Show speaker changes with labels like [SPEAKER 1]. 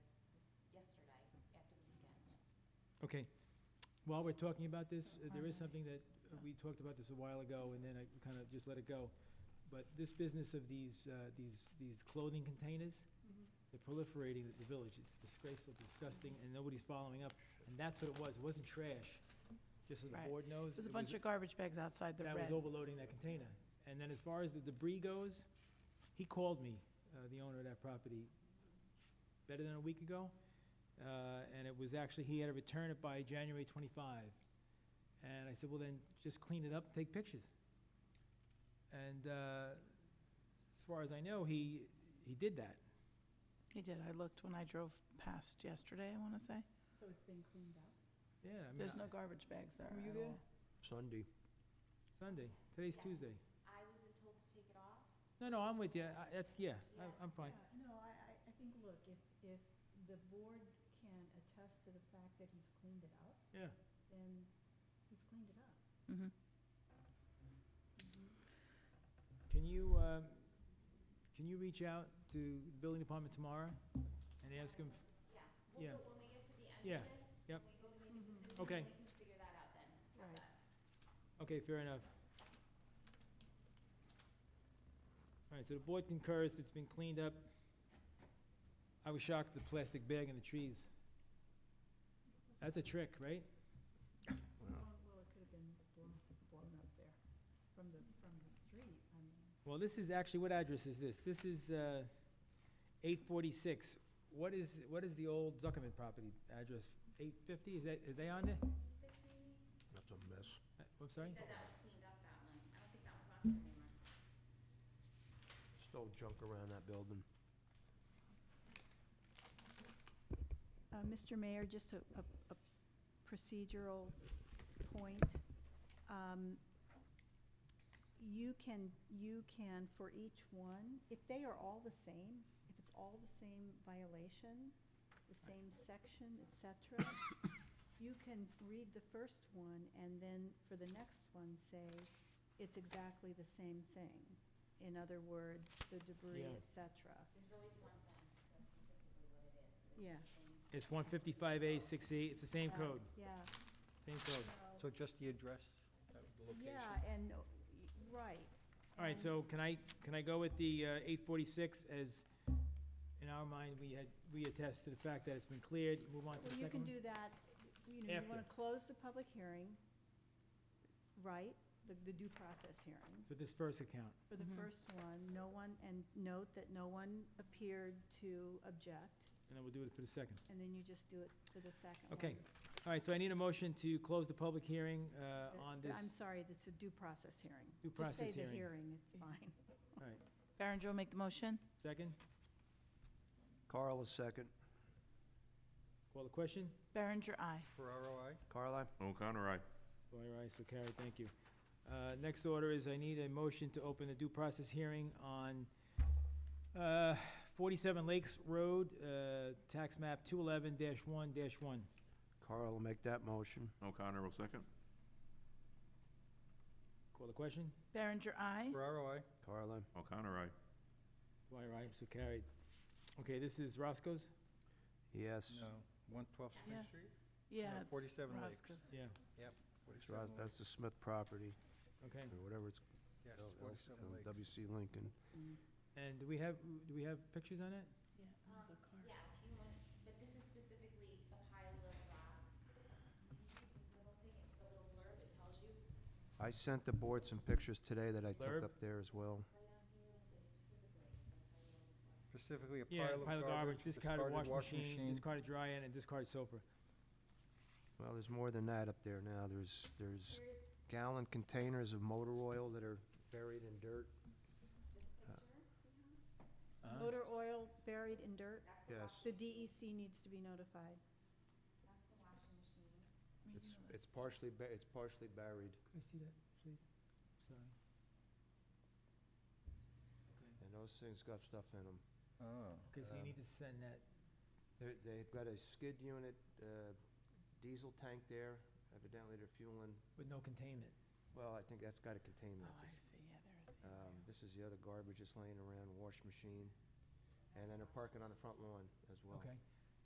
[SPEAKER 1] Okay. While we're talking about this, uh, there is
[SPEAKER 2] Uh-huh.
[SPEAKER 1] something that, uh, we talked about this a while ago, and then I kind of just let it go. But this business of these, uh, these, these clothing containers,
[SPEAKER 2] Mm-hmm.
[SPEAKER 1] they're proliferating at the village. It's disgraceful, disgusting, and nobody's following up. And that's what it was. It wasn't trash, just so the
[SPEAKER 2] Right.
[SPEAKER 1] board knows.
[SPEAKER 2] There's a
[SPEAKER 1] it
[SPEAKER 2] bunch of garbage bags outside the
[SPEAKER 1] that was
[SPEAKER 2] red.
[SPEAKER 1] overloading that container. And then as far as the debris goes, he called me, uh, the owner of that property, better than a week ago. Uh, And it was actually, he had to return it by January 25. And I said, well, then just clean it up, and take pictures. And uh, as far as I know, he, he did that.
[SPEAKER 2] He did, I looked when I drove past yesterday, I want to say.
[SPEAKER 3] So it's been cleaned up?
[SPEAKER 1] Yeah, I mean.
[SPEAKER 2] There's
[SPEAKER 1] I-
[SPEAKER 2] no garbage bags there
[SPEAKER 1] Were you
[SPEAKER 2] at
[SPEAKER 1] there?
[SPEAKER 2] all.
[SPEAKER 4] Sunday.
[SPEAKER 1] Sunday, today's
[SPEAKER 3] Yes.
[SPEAKER 1] Tuesday.
[SPEAKER 3] I wasn't told to take it off.
[SPEAKER 1] No, no, I'm with you. I- that's- Yeah, I-
[SPEAKER 3] Yeah,
[SPEAKER 1] I'm fine.
[SPEAKER 3] Yeah, No, I, I, I think, look, if, if the board can attest to the fact that he's cleaned it up,
[SPEAKER 1] Yeah.
[SPEAKER 3] then he's cleaned it up.
[SPEAKER 2] Mhm.
[SPEAKER 1] Can you, um, can you reach out to the building department tomorrow and ask them? Yeah. Yeah, yep. Okay,
[SPEAKER 3] Right.
[SPEAKER 1] okay, fair enough. All right, so the board concurs, it's been cleaned up. I was shocked at the plastic bag in the trees. That's a trick, right?
[SPEAKER 3] Well, well, it could have been blown, blown up there from the, from the street, I mean.
[SPEAKER 1] Well, this is actually, what address is this? This is uh, 846. What is, what is the old Zuckerman property address? 850, is that, are they on there?
[SPEAKER 4] That's a mess.
[SPEAKER 1] Uh, I'm sorry?
[SPEAKER 4] Still junk around that building.
[SPEAKER 5] Uh, Mr. Mayor, just a, a- a procedural point. Um, You can, you can, for each one, if they are all the same, if it's all the same violation, the same section, et cetera, you can read the first one and then for the next one say, it's exactly the same thing. In other words, the debris,
[SPEAKER 1] Yeah.
[SPEAKER 5] et cetera. Yeah.
[SPEAKER 1] It's one fifty-five A, six E, it's the same
[SPEAKER 5] Uh,
[SPEAKER 1] code,
[SPEAKER 5] Yeah.
[SPEAKER 1] same code.
[SPEAKER 4] So just the address, uh, the location?
[SPEAKER 5] Yeah, and, uh, y- right.
[SPEAKER 1] All right,
[SPEAKER 5] and-
[SPEAKER 1] so can I, can I go with the uh, eight forty-six as, in our mind, we had, we attest to the fact that it's been cleared, move on to the
[SPEAKER 5] Well,
[SPEAKER 1] second one?
[SPEAKER 5] you can do that, you know, you
[SPEAKER 1] After.
[SPEAKER 5] want to close the public hearing, right? The, the due process hearing
[SPEAKER 1] For this first account,
[SPEAKER 5] for the
[SPEAKER 2] Mhm.
[SPEAKER 5] first one, no one, and note that no one appeared to object,
[SPEAKER 1] and then we'll do it for the second.
[SPEAKER 5] and then you just do it for the second one.
[SPEAKER 1] Okay, all right, so I need a motion to close the public hearing uh,
[SPEAKER 5] The-
[SPEAKER 1] on
[SPEAKER 5] the-
[SPEAKER 1] this
[SPEAKER 5] I'm sorry, it's a due process hearing.
[SPEAKER 1] due
[SPEAKER 5] Just
[SPEAKER 1] process
[SPEAKER 5] say the
[SPEAKER 1] hearing. Uh-huh.
[SPEAKER 5] hearing, it's fine.
[SPEAKER 2] Barron Joe make the motion?
[SPEAKER 1] Second,
[SPEAKER 4] Carl is second.
[SPEAKER 1] call the question?
[SPEAKER 2] Berenger, aye.
[SPEAKER 4] Ferraro, aye? Carl, aye.
[SPEAKER 6] O'Connor, aye.
[SPEAKER 1] Dwyer, aye, so carried, thank you. Uh, Next order is I need a motion to open a due process hearing on uh, 47 Lakes Road, uh, tax map 211-1-1.
[SPEAKER 4] Carl will make that motion.
[SPEAKER 6] O'Connor will second.
[SPEAKER 1] Call the question?
[SPEAKER 2] Berenger, aye.
[SPEAKER 4] Ferraro, aye? Carl, aye.
[SPEAKER 6] O'Connor, aye.
[SPEAKER 1] Dwyer, aye, so carried. Okay, this is Roscoe's?
[SPEAKER 4] Yes.
[SPEAKER 7] No, one twelve
[SPEAKER 2] Yeah.
[SPEAKER 7] Spring Street?
[SPEAKER 2] Yeah,
[SPEAKER 7] No,
[SPEAKER 2] it's
[SPEAKER 7] 47 Lakes.
[SPEAKER 2] Roscoe's.
[SPEAKER 1] Yeah,
[SPEAKER 4] It's
[SPEAKER 7] 47
[SPEAKER 4] Ros-
[SPEAKER 7] Lake.
[SPEAKER 4] That's the Smith property,
[SPEAKER 1] okay.
[SPEAKER 4] or whatever it's,
[SPEAKER 7] Yes,
[SPEAKER 4] L- L-
[SPEAKER 7] forty-seven
[SPEAKER 4] L-
[SPEAKER 7] Lakes.
[SPEAKER 4] WC Lincoln.
[SPEAKER 1] And do we have, do we have pictures on it?
[SPEAKER 2] Yeah, there's a car.
[SPEAKER 8] Yeah, if you want, but this is specifically a pile of rock. Little thing, the little blurb, it tells you
[SPEAKER 4] I sent the board some pictures today that I
[SPEAKER 1] Blurb.
[SPEAKER 4] took up there as well.
[SPEAKER 7] Specifically a
[SPEAKER 1] Yeah,
[SPEAKER 7] pile of garbage,
[SPEAKER 1] Discarded wash machine,
[SPEAKER 7] machine.
[SPEAKER 1] discarded dryer, and discarded sofa.
[SPEAKER 4] Well, there's more than that up there now. There's, there's gallon containers of motor oil that are buried in dirt.
[SPEAKER 1] Uh-huh.
[SPEAKER 5] Motor oil buried in dirt,
[SPEAKER 4] Yes.
[SPEAKER 5] the DEC needs to be notified.
[SPEAKER 4] It's,
[SPEAKER 2] Oh,
[SPEAKER 4] it's partially, ba- it's partially buried.
[SPEAKER 1] Can I see that, please? Sorry.
[SPEAKER 4] And those things got stuff in them.
[SPEAKER 7] Oh.
[SPEAKER 1] Okay, so you
[SPEAKER 4] Um,
[SPEAKER 1] need to send that,
[SPEAKER 4] They're, they've got a skid unit, uh, diesel tank there, evidently they're fueling,
[SPEAKER 1] with no containment.
[SPEAKER 4] well, I think that's got a containment.
[SPEAKER 2] Oh, I see, yeah, there's the
[SPEAKER 4] Um, this is the other garbage that's laying around, wash machine, and then they're parking on the front lawn as well.
[SPEAKER 1] Okay.